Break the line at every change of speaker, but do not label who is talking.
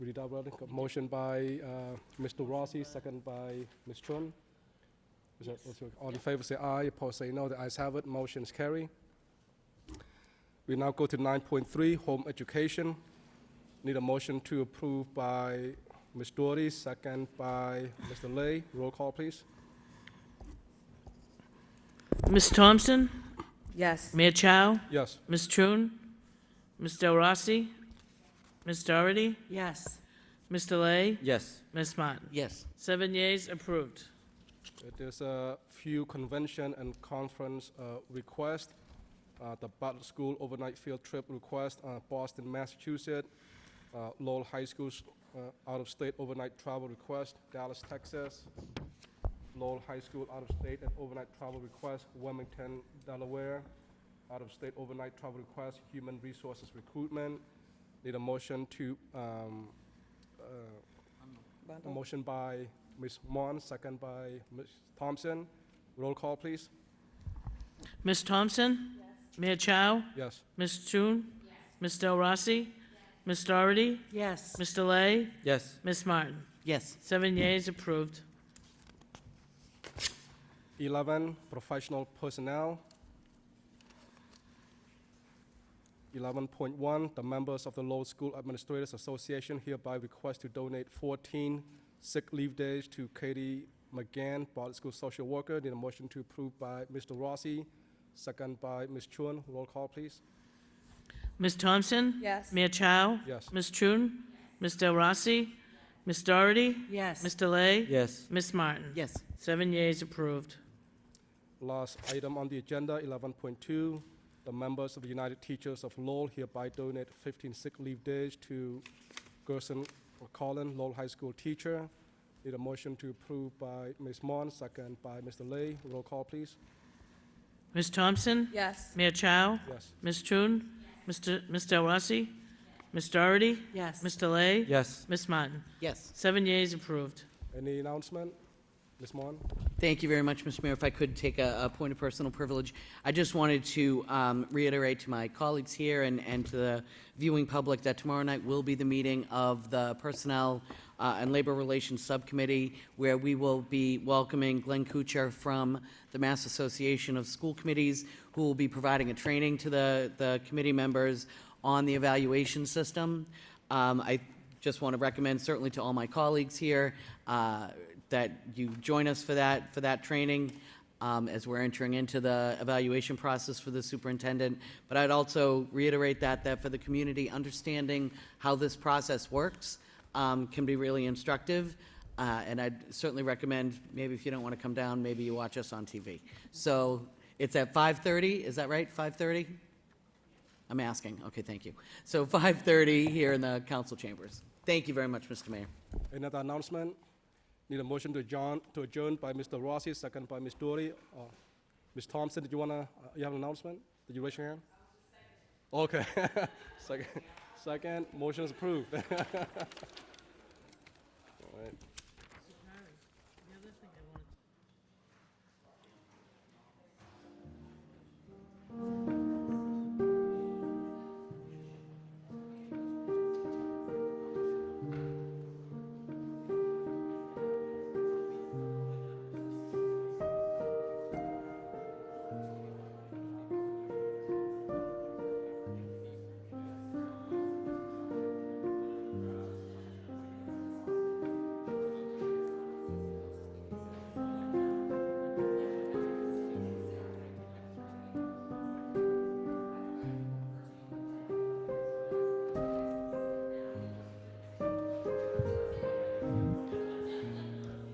Read it out, brother. Motion by uh, Mr. Rossi, second by Ms. Chun. Is that- All in favor, say aye. Opposed, say no. The ayes have it. Motion is carried. We now go to 9.3, home education. Need a motion to approve by Ms. Doherty, second by Mr. Lay. Roll call, please.
Ms. Thompson?
Yes.
Mia Chow?
Yes.
Ms. Trun? Ms. Del Rossi? Ms. Doherty?
Yes.
Mr. Lay?
Yes.
Ms. Martin?
Yes.
Seven yeas, approved.
There's a few convention and conference uh, requests. Uh, The Butler School overnight field trip request, uh, Boston, Massachusetts, Uh, Lowell High School's uh, out-of-state overnight travel request, Dallas, Texas, Lowell High School out-of-state and overnight travel request, Wilmington, Delaware, out-of-state overnight travel request, Human Resources Recruitment. Need a motion to um, uh, a motion by Ms. Mon, second by Ms. Thompson. Roll call, please.
Ms. Thompson? Mia Chow?
Yes.
Ms. Trun? Ms. Del Rossi? Ms. Doherty?
Yes.
Mr. Lay?
Yes.
Ms. Martin?
Yes.
Seven yeas, approved.
11, professional personnel. 11.1, the members of the Lowell School Administrators Association hereby request to donate 14 sick leave days to Katie McGann, Bartlett School Social Worker. Need a motion to approve by Mr. Rossi, second by Ms. Chuen. Roll call, please.
Ms. Thompson?
Yes.
Mia Chow?
Yes.
Ms. Trun? Ms. Del Rossi? Ms. Doherty?
Yes.
Mr. Lay?
Yes.
Ms. Martin?
Yes.
Seven yeas, approved.
Last item on the agenda, 11.2, the members of the United Teachers of Lowell hereby donate 15 sick leave days to Gerson Collin, Lowell High School teacher. Need a motion to approve by Ms. Mon, second by Mr. Lay. Roll call, please.
Ms. Thompson?
Yes.
Mia Chow?
Yes.
Ms. Chun? Mr. Ms. Del Rossi? Ms. Doherty?
Yes.
Mr. Lay?
Yes.
Ms. Martin?
Yes.
Seven yeas, approved.
Any announcement? Ms. Mon?
Thank you very much, Mr. Mayor. If I could take a, a point of personal privilege, I just wanted to um, reiterate to my colleagues here and, and to the viewing public that tomorrow night will be the meeting of the Personnel uh, and Labor Relations Subcommittee, where we will be welcoming Glenn Kuchar from the Mass Association of School Committees, who will be providing a training to the, the committee members on the evaluation system. Um, I just want to recommend certainly to all my colleagues here uh, that you join us for that, for that training um, as we're entering into the evaluation process for the superintendent. But I'd also reiterate that, that for the community, understanding how this process works um, can be really instructive. Uh, And I'd certainly recommend, maybe if you don't want to come down, maybe you watch us on TV. So it's at 5:30, is that right? 5:30? I'm asking, okay, thank you. So 5:30 here in the council chambers. Thank you very much, Mr. Mayor.
Another announcement? Need a motion to adjourn, to adjourn by Mr. Rossi, second by Ms. Doherty. Uh, Ms. Thompson, did you wanna, uh, you have an announcement? Did you raise your hand? Okay. Second, second, motion is approved. All right.